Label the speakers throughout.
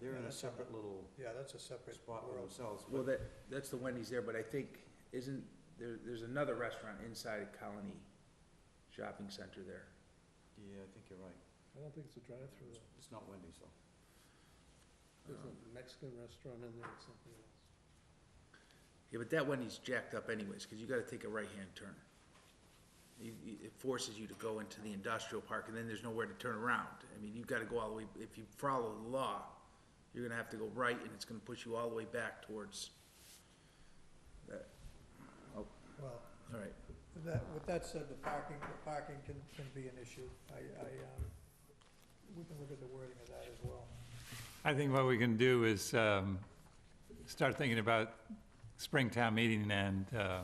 Speaker 1: They're in a
Speaker 2: that's on
Speaker 1: separate little
Speaker 2: Yeah, that's a separate
Speaker 1: spot with
Speaker 2: world.
Speaker 1: themselves,
Speaker 3: Well,
Speaker 1: but
Speaker 3: that, that's the Wendy's there, but I think, isn't, there, there's another restaurant inside of Colony Shopping Center there.
Speaker 1: yeah, uh, I think you're right.
Speaker 4: I don't think it's a drive-through,
Speaker 1: It's-
Speaker 4: though.
Speaker 1: It's not Wendy's though.
Speaker 4: there's a Mexican restaurant in there or something else.
Speaker 3: Yeah, but that Wendy's jacked up anyways, because you gotta take a right-hand turn. You, you, it forces you to go into the industrial park, and then there's nowhere to turn around. I mean, you've gotta go all the way, if you follow the law, you're gonna have to go right, and it's gonna push you all the way back towards that. Oh,
Speaker 2: Well,
Speaker 3: all right.
Speaker 2: with that, with that said, the parking, the parking can, can be an issue. I, I, um, we can look at the wording of that as well.
Speaker 5: I think what we can do is um, start thinking about Springtown meeting and uh,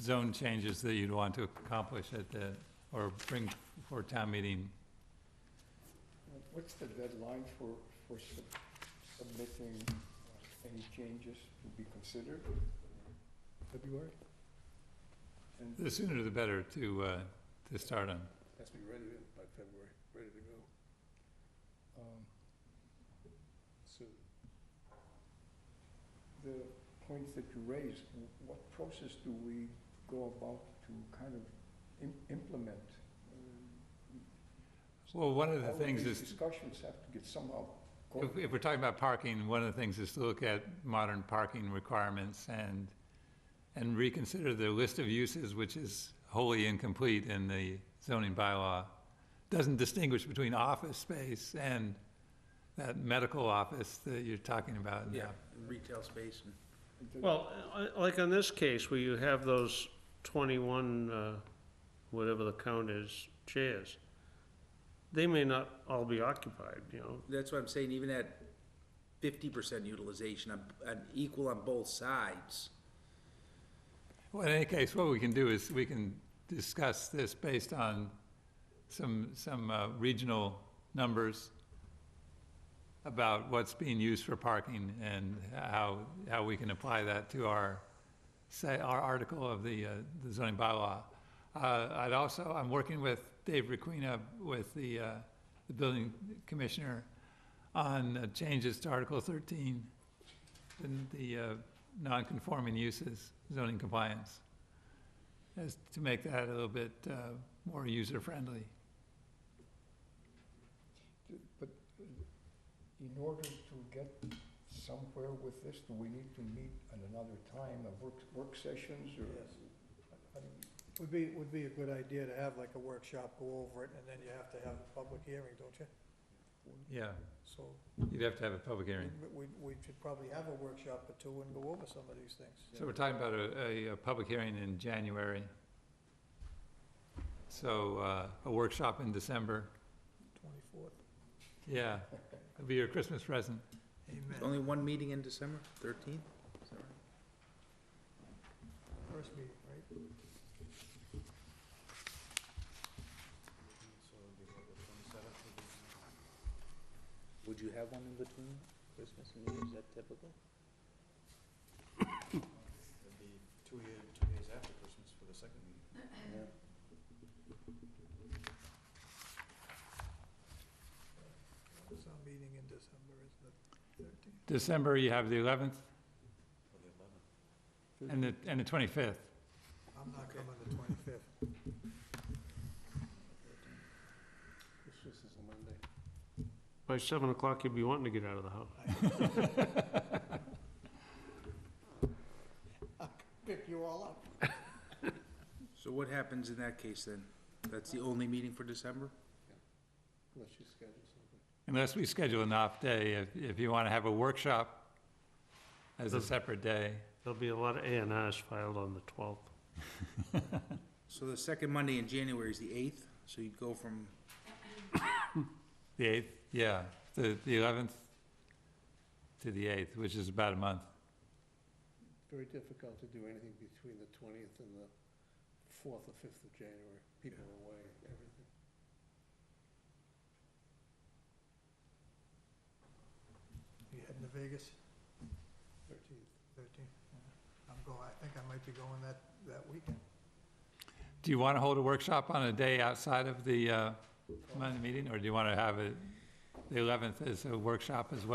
Speaker 5: zone changes that you'd want to accomplish at the, or bring for town meeting.
Speaker 6: What's the deadline for, for sub- submitting uh, any changes to be considered? February? And
Speaker 5: The sooner the better to, uh, to start on.
Speaker 4: Has to be ready by February, ready to go
Speaker 6: um,
Speaker 4: soon.
Speaker 6: the points that you raised, wh- what process do we go about to kind of im- implement? Um,
Speaker 5: Well, one of the
Speaker 6: all of
Speaker 5: things
Speaker 6: these
Speaker 5: is,
Speaker 6: Discussions have to get somehow. go-
Speaker 5: if if we're talking about parking, one of the things is to look at modern parking requirements and, and reconsider the list of uses, which is wholly incomplete in the zoning bylaw. Doesn't distinguish between office space and that medical office that you're talking about
Speaker 3: Yeah,
Speaker 5: now.
Speaker 3: retail space and.
Speaker 6: into-
Speaker 7: Well, uh, like on this case, where you have those twenty-one, uh, whatever the count is, chairs, they may not all be occupied, you know?
Speaker 3: That's what I'm saying, even at fifty percent utilization, I'm, I'm equal on both sides.
Speaker 5: Well, in any case, what we can do is we can discuss this based on some, some uh, regional numbers about what's being used for parking and how, how we can apply that to our, say, our article of the uh, the zoning bylaw. Uh, I'd also, I'm working with Dave Requena, with the, uh, the building commissioner on uh, changes to Article thirteen and the uh, non-conforming uses, zoning compliance, as to make that a little bit uh, more user-friendly.
Speaker 6: But uh, in order to get somewhere with this, do we need to meet at another time of work, work sessions or?
Speaker 2: Yes.
Speaker 6: I don't-
Speaker 2: Would be, would be a good idea to have like a workshop, go over it, and then you have to have a public hearing, don't you?
Speaker 5: Yeah,
Speaker 2: So
Speaker 5: you'd have to have a public
Speaker 2: we,
Speaker 5: hearing.
Speaker 2: we, we should probably have a workshop or two and go over some of these things.
Speaker 5: So we're talking about a, a, a public hearing in January. So uh, a workshop in December,
Speaker 2: Twenty-fourth.
Speaker 5: yeah, it'll be your Christmas present.
Speaker 2: Amen.
Speaker 3: Only one meeting in December, thirteenth?
Speaker 2: First meeting, right?
Speaker 1: So it'd be like the 27th would be-
Speaker 3: Would you have one in between Christmas and New Year's, is that typical?
Speaker 1: It'd be two years, two days after Christmas for the second meeting.
Speaker 2: There's our meeting in December, is the thirteenth.
Speaker 5: December, you have the 11th
Speaker 1: Or the eleventh.
Speaker 5: and the, and the 25th.
Speaker 2: I'm not coming the twenty-fifth.
Speaker 4: Christmas is a Monday.
Speaker 7: By seven o'clock, you'd be wanting to get out of the house.
Speaker 2: Pick you all up.
Speaker 3: So what happens in that case then? That's the only meeting for December?
Speaker 4: Unless you schedule something.
Speaker 5: Unless we schedule an off day, if, if you want to have a workshop as a
Speaker 7: Does-
Speaker 5: separate day.
Speaker 7: There'll be a lot of A and Rs filed on the twelfth.
Speaker 3: So the second Monday in January is the eighth, so you'd go from,
Speaker 5: The 8th, yeah, the, the 11th to the 8th, which is about a month.
Speaker 4: Very difficult to do anything between the twentieth and the fourth or fifth of January. People are away, everything.
Speaker 2: You heading to Vegas?
Speaker 4: Thirteenth,
Speaker 2: Thirteenth. I'm going, I think I might be going that, that weekend.
Speaker 5: Do you want to hold a workshop on a day outside of the uh, Monday meeting, or do you want to have it, the 11th as a workshop as well?